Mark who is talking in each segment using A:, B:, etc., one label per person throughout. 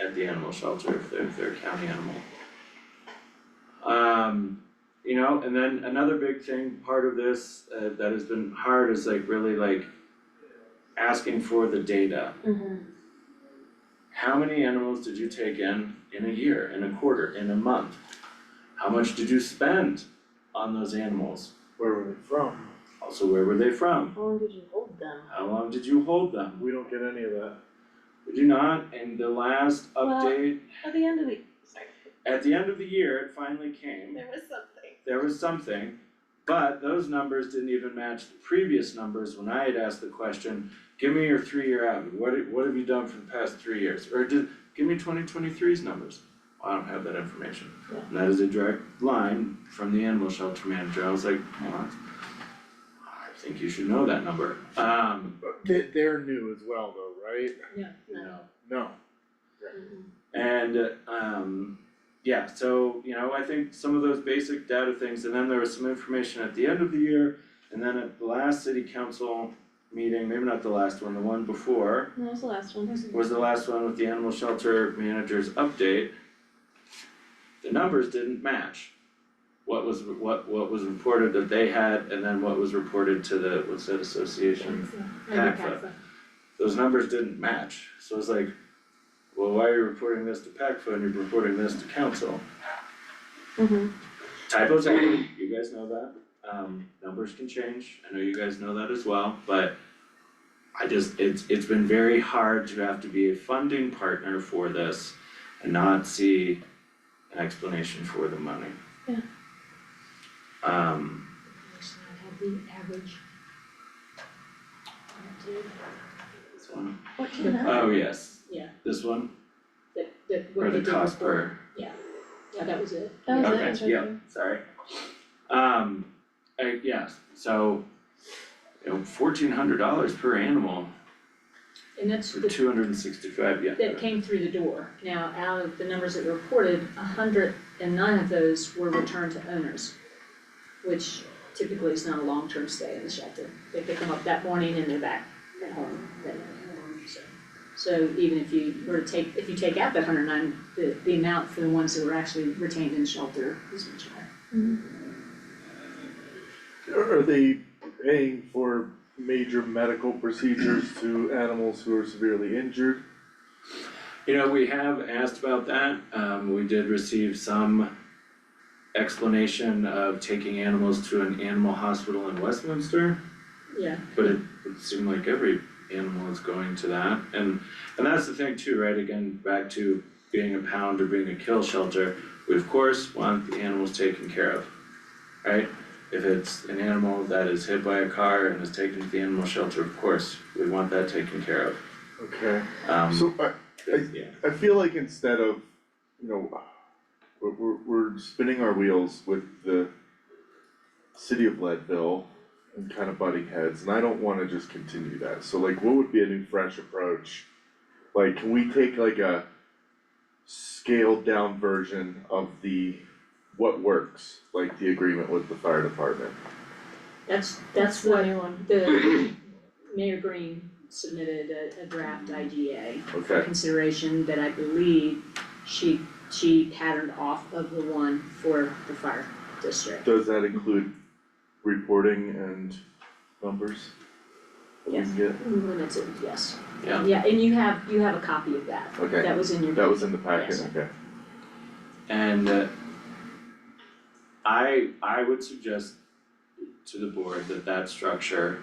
A: at the animal shelter if they're, if they're a county animal. Um, you know, and then another big thing, part of this, uh, that has been hard is like really like asking for the data.
B: Mhm.
A: How many animals did you take in in a year, in a quarter, in a month? How much did you spend on those animals?
C: Where were they from?
A: Also, where were they from?
B: How long did you hold them?
A: How long did you hold them?
C: We don't get any of that.
A: We do not, and the last
B: Well-
A: update,
B: At the end of the, sorry,
A: at the end of the year, it finally came,
B: there was something.
A: there was something. But those numbers didn't even match the previous numbers when I had asked the question, give me your three-year average, what have- what have you done for the past three years? Or did, give me 2023's numbers. Well, I don't have that information.
B: Yeah.
A: And that is a direct line from the animal shelter manager, I was like, well, that's- I think you should know that number, um,
C: They, they're new as well though, right?
A: you know.
C: No.
B: Mhm.
A: And um yeah, so you know, I think some of those basic data things, and then there was some information at the end of the year, and then at the last city council meeting, maybe not the last one, the one before,
B: And That was the last one.
A: was the last one with the animal shelter manager's update. The numbers didn't match. What was what what was reported that they had and then what was reported to the, what's that association? PACFA those numbers didn't match, so it's like, well, why are you reporting this to PACFA and you're reporting this to council?
B: Mhm.
A: Typos happen, you guys know that, um, numbers can change, I know you guys know that as well, but I just, it's, it's been very hard to have to be a funding partner for this and not see an explanation for the money.
B: Yeah.
A: Um.
D: Does not have the average.
A: This one?
B: Fourteen hundred.
A: Oh, yes.
D: Yeah.
A: This one,
D: That, that,
A: or
D: what they
A: the
D: did
A: cost
D: before.
A: per.
D: Yeah, that was it.
B: That was it,
A: Okay,
B: it was right
A: yeah.
B: there.
A: sorry. Um, I, yeah, so, you know, fourteen hundred dollars per animal
D: And that's
A: for
D: the,
A: two hundred and sixty-five, yeah.
D: that came through the door. Now, out of the numbers that were reported, a hundred and nine of those were returned to owners. Which typically is not a long-term stay in the shelter. They pick them up that morning and they're back at home that night, so. So even if you were to take, if you take out that hundred and nine, the, the amount for the ones that were actually retained in shelter is much higher.
C: Are are they paying for major medical procedures to animals who are severely injured?
A: You know, we have asked about that, um, we did receive some explanation of taking animals to an animal hospital in Westminster,
D: Yeah,
A: but it would seem like every animal is going to that, and, and that's the thing too, right, again, back to being a pound or being a kill shelter, we of course want the animals taken care of, right? If it's an animal that is hit by a car and is taken to the animal shelter, of course, we want that taken care of,
C: Okay,
A: um,
C: so uh, I,
A: yeah,
C: I feel like instead of, you know, we're, we're, we're spinning our wheels with the city of Leadville and kind of butting heads, and I don't wanna just continue that, so like, what would be a new fresh approach? Like, can we take like a scaled down version of the, what works, like the agreement with the fire department?
D: that's, that's
B: the
D: what
B: new one.
D: the Mayor Green submitted a, a draft IGA for
C: Okay,
D: consideration that I believe she, she patterned off of the one for the fire district.
C: does that include reporting and numbers? that we can get?
D: Limited, yes.
A: Yeah.
D: Yeah, and you have, you have a copy of that.
C: Okay.
D: That was in your.
C: That was in the packet,
D: Yes.
C: okay.
A: and uh, I, I would suggest to the board that that structure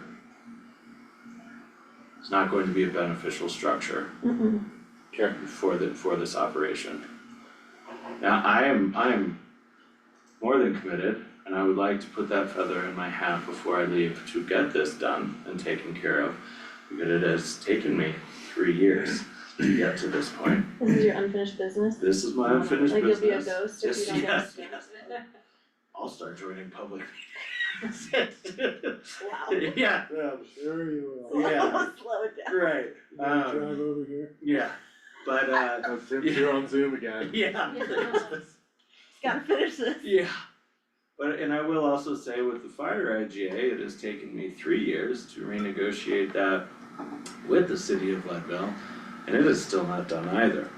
A: is not going to be a beneficial structure.
B: Mhm.
A: for the, for this operation. Now, I am, I am more than committed, and I would like to put that feather in my hat before I leave to get this done and taken care of. Because it has taken me three years to get to this point.
B: This is your unfinished business?
A: This is my unfinished
B: Like you'll
A: business.
B: be a ghost if
A: Yes,
B: you don't get
A: yes,
B: this done?
A: yes. I'll start joining public meetings.
B: Wow.
A: Yeah,
E: Yeah, I'm sure you will.
A: yeah,
B: Slow it down.
A: right,
E: You gonna
A: Um,
E: drive over here?
A: yeah, but uh,
C: Oh, Tim's here on Zoom again.
A: yeah.
B: Gotta finish this.
A: Yeah. But, and I will also say with the fire IGA, it has taken me three years to renegotiate that with the city of Leadville, and it is still not done either.